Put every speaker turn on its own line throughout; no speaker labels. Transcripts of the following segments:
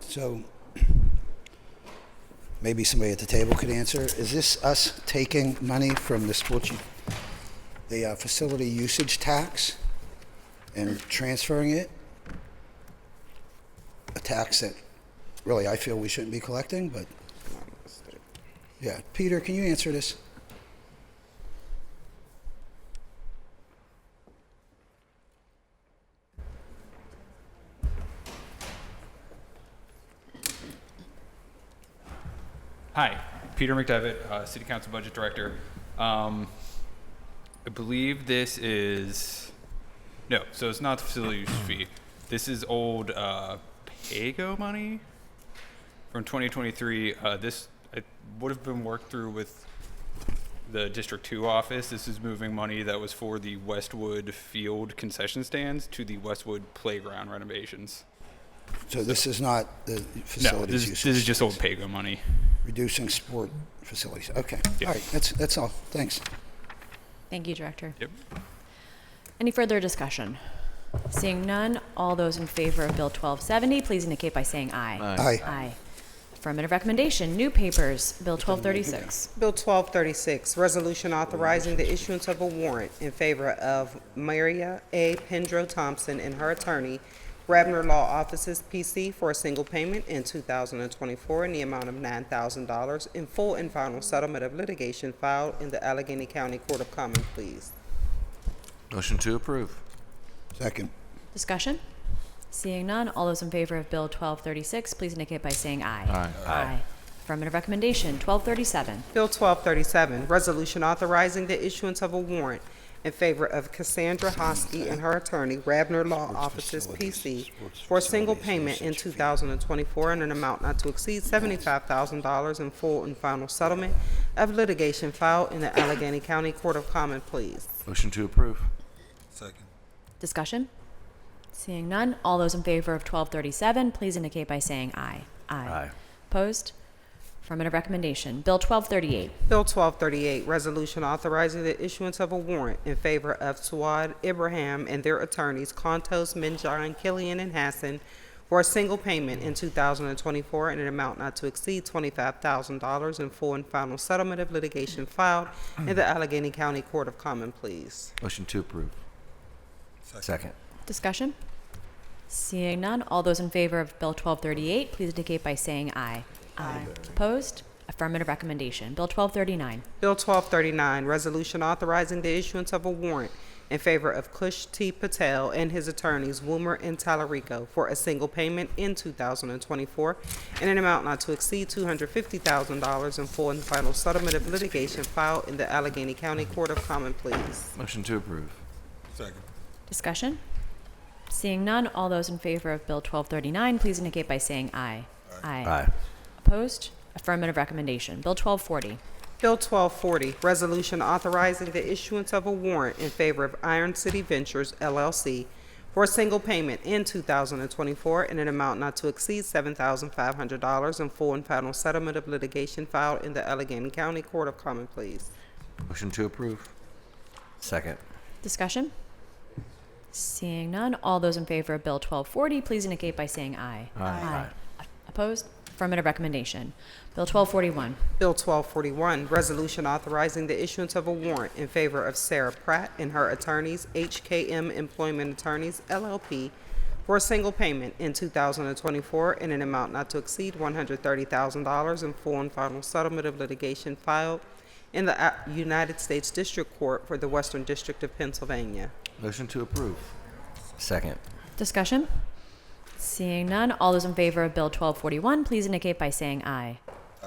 So maybe somebody at the table could answer. Is this us taking money from the sports, u- the uh, facility usage tax and transferring it? A tax that really I feel we shouldn't be collecting, but yeah. Peter, can you answer this?
Hi, Peter McDevitt, uh, City Council Budget Director. Um, I believe this is, no, so it's not the facility use fee. This is old uh, Pago money from 2023. Uh, This it would have been worked through with the District 2 office. This is moving money that was for the Westwood Field concession stands to the Westwood Playground renovations.
So this is not the
No,
facilities
this
usage.
is- this is just old Pago money.
Reducing sport facilities. Okay.
Yeah.
All right. That's, that's all. Thanks.
Thank you, Director.
Yep.
Any further discussion? Seeing none, all those in favor of Bill 1270, please indicate by saying aye.
Aye.
Aye. Affirmative recommendation, new papers, Bill 1236.
Bill 1236, resolution authorizing the issuance of a warrant in favor of Maria A. Pendro Thompson and her attorney, Rabner Law Offices, P.C., for a single payment in 2024 in the amount of $9,000 in full and final settlement of litigation filed in the Allegheny County Court of Common Pleas.
Motion to approve.
Second.
Discussion? Seeing none, all those in favor of Bill 1236, please indicate by saying aye.
Aye.
Aye. Affirmative recommendation, 1237.
Bill 1237, resolution authorizing the issuance of a warrant in favor of Cassandra Hosky and her attorney, Rabner Law Offices, P.C., for a single payment in 2024 in an amount not to exceed $75,000 in full and final settlement of litigation filed in the Allegheny County Court of Common Pleas.
Motion to approve.
Discussion? Seeing none, all those in favor of 1237, please indicate by saying aye.
Aye.
Opposed? Affirmative recommendation, Bill 1238.
Bill 1238, resolution authorizing the issuance of a warrant in favor of Suad Ibrahim and their attorneys, Contos, Minjan, Killian, and Hassan, for a single payment in 2024 in an amount not to exceed $25,000 in full and final settlement of litigation filed in the Allegheny County Court of Common Pleas.
Motion to approve. Second.
Discussion? Seeing none, all those in favor of Bill 1238, please indicate by saying aye. Aye. Opposed? Affirmative recommendation. Bill 1239.
Bill 1239, resolution authorizing the issuance of a warrant in favor of Kush T. Patel and his attorneys Woomer and Talarico for a single payment in 2024 in an amount not to exceed $250,000 in full and final settlement of litigation filed in the Allegheny County Court of Common Pleas.
Motion to approve.
Discussion? Seeing none, all those in favor of Bill 1239, please indicate by saying aye. Aye. Opposed? Affirmative recommendation. Bill 1240.
Bill 1240, resolution authorizing the issuance of a warrant in favor of Iron City Ventures LLC for a single payment in 2024 in an amount not to exceed $7,500 in full and final settlement of litigation filed in the Allegheny County Court of Common Pleas.
Motion to approve. Second.
Discussion? Seeing none, all those in favor of Bill 1240, please indicate by saying aye.
Aye.
Opposed? Affirmative recommendation. Bill 1241.
Bill 1241, resolution authorizing the issuance of a warrant in favor of Sarah Pratt and her attorneys, HKM Employment Attorneys LLP, for a single payment in 2024 in an amount not to exceed $130,000 in full and final settlement of litigation filed in the uh, United States District Court for the Western District of Pennsylvania.
Motion to approve. Second.
Discussion? Seeing none, all those in favor of Bill 1241, please indicate by saying aye.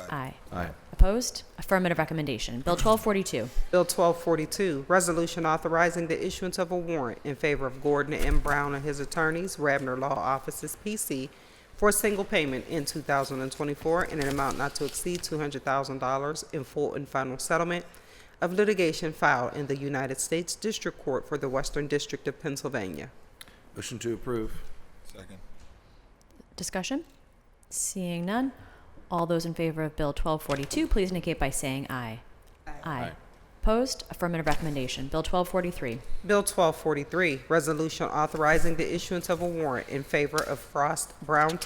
Aye.
Aye.
Opposed? Affirmative recommendation. Bill 1242.
Bill 1242, resolution authorizing the issuance of a warrant in favor of Gordon M. Brown and his attorneys, Rabner Law Offices, P.C., for a single payment in 2024 in an amount not to exceed $200,000 in full and final settlement of litigation filed in the United States District Court for the Western District of Pennsylvania.
Motion to approve.
Discussion? Seeing none, all those in favor of Bill 1242, please indicate by saying aye. Aye. Opposed? Affirmative recommendation. Bill 1243.
Bill 1243, resolution authorizing the issuance of a warrant in favor of Frost Brown